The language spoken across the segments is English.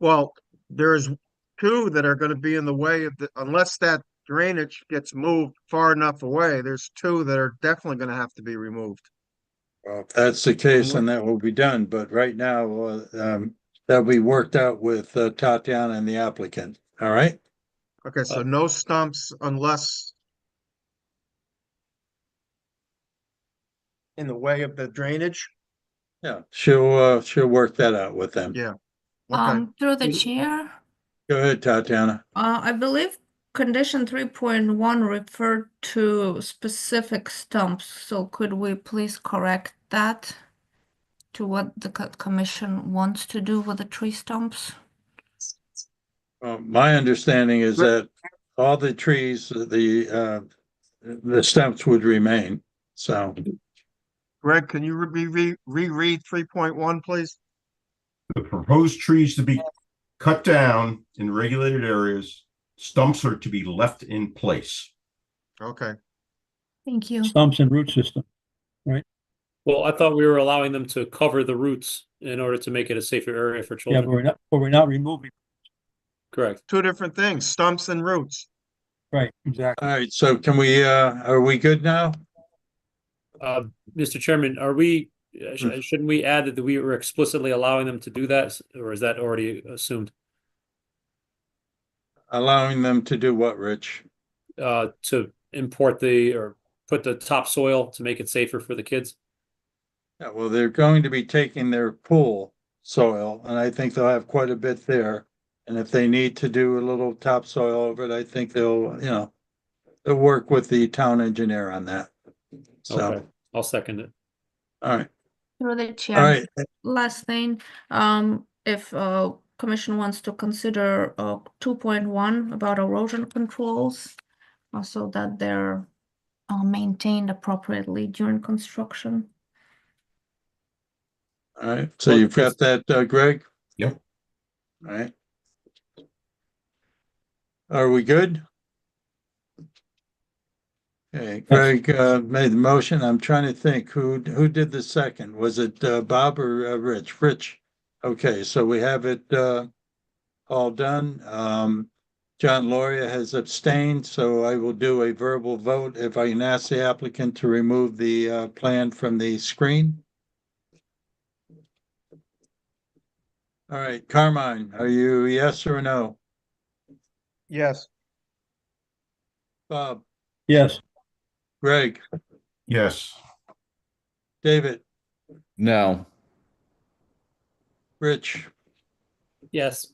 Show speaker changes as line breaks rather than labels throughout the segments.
Well, there's two that are gonna be in the way of the, unless that drainage gets moved far enough away, there's two that are definitely gonna have to be removed.
Well, if that's the case, then that will be done, but right now, uh, um, that'll be worked out with uh, Tatiana and the applicant, all right?
Okay, so no stumps unless in the way of the drainage?
Yeah, she'll, uh, she'll work that out with them.
Yeah. Okay,
Um, through the
Mm.
chair,
Go ahead, Tatiana.
uh, I believe condition three point one referred to specific stumps, so could we please correct that? To what the co- commission wants to do with the tree stumps?
Uh, my understanding is
Sure.
that all the trees, the, uh, the stumps would remain, so.
Greg, can you re- re- reread three point one, please?
The proposed trees to be cut down in regulated areas, stumps are to be left in place.
Okay,
Thank you.
stumps and root system.
Well, I thought we were allowing them to cover the roots in order to make it a safer area for
Yeah, but
children.
we're not, but we're not removing,
Correct.
two different things, stumps and roots.
right, exactly.
All right, so can we, uh, are we good now?
Uh, Mr. Chairman, are we, uh,
Hmm.
sh- shouldn't we add that we were explicitly allowing them to do that? s- Or is that already assumed?
Allowing them to do what, Rich?
Uh, to import the, or put the topsoil to make it safer for the kids?
Yeah, well, they're going to be taking their pool soil, and I think they'll have quite a bit there. And if they need to do a little topsoil over it, I think they'll, you know, they'll work with the town engineer on that.
Okay,
So,
I'll second it.
all right,
Through the
all
chair.
right,
Last thing, um, if, uh, commission wants to consider, uh, two point one about erosion controls, uh, so that they're, uh, maintained appropriately during construction.
all right. So you've got that, uh, Greg?
Yep.
All right. Are we good? Okay, Greg, uh, made the motion. I'm trying to think who, who did the second? Was it, uh, Bob or, uh, Rich? Rich? Okay, so we have it, uh, all done. Um, John Loria has abstained, so I will do a verbal vote if I can ask the applicant to remove the, uh, plan from the screen. All right, Carmine, are you yes or no?
Yes,
Bob,
Yes,
Greg,
Yes,
David,
No,
Rich?
Yes.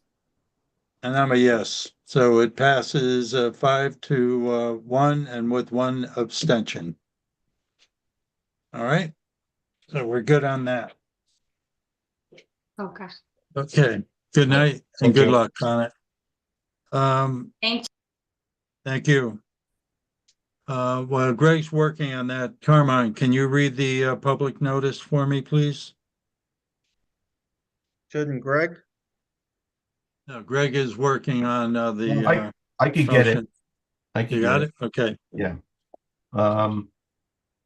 And I'm a yes, so it passes uh five to uh one and with one abstention. All right, so we're good on that.
Okay.
Okay, good night and
Thank
good
you.
luck on it. Um,
Thank
thank you. Uh, while Greg's working on that, Carmine, can you read the uh public notice for me, please?
shouldn't Greg?
No, Greg is working on uh the.
I
uh,
I could get it.
motion.
I could
You
get
got it? Okay,
Um,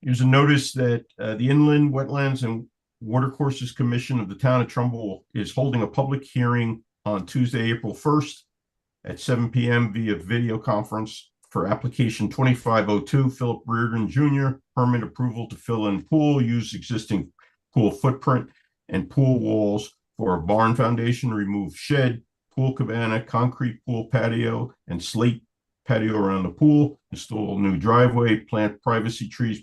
here's a notice that, uh, the Inland Wetlands and Watercourses Commission of the Town of Trumbull is holding a public hearing on Tuesday, April first at seven PM via video conference for application twenty-five oh two Philip Reardon Jr. Permit approval to fill in pool, use existing pool footprint and pool walls for a barn foundation, remove shed, pool cabana, concrete pool patio, and slate patio around the pool, install new driveway, plant privacy trees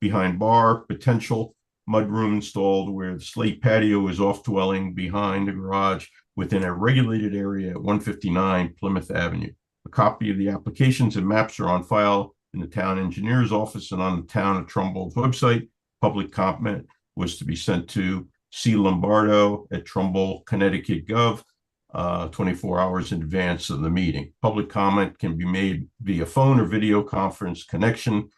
behind bar, potential mudroom installed where the slate patio is off dwelling behind the garage within a regulated area at one fifty-nine Plymouth Avenue. A copy of the applications and maps are on file in the town engineer's office and on the town of Trumbull's website. Public comment was to be sent to C Lombardo at Trumbull, Connecticut gov uh, 24 hours in advance of the meeting. Public comment can be made via phone or video conference connection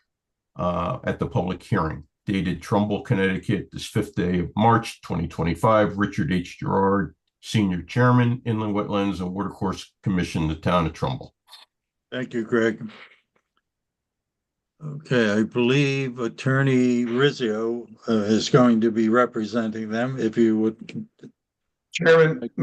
uh, at the public hearing dated Trumbull, Connecticut, this fifth day of March 2025. Richard H. Gerard, Senior Chairman, Inland Wetlands and Watercourse Commission, the Town of Trumbull.
thank you, Greg. Okay, I believe Attorney Rizzio uh, is going to be representing them if you would
Chairman,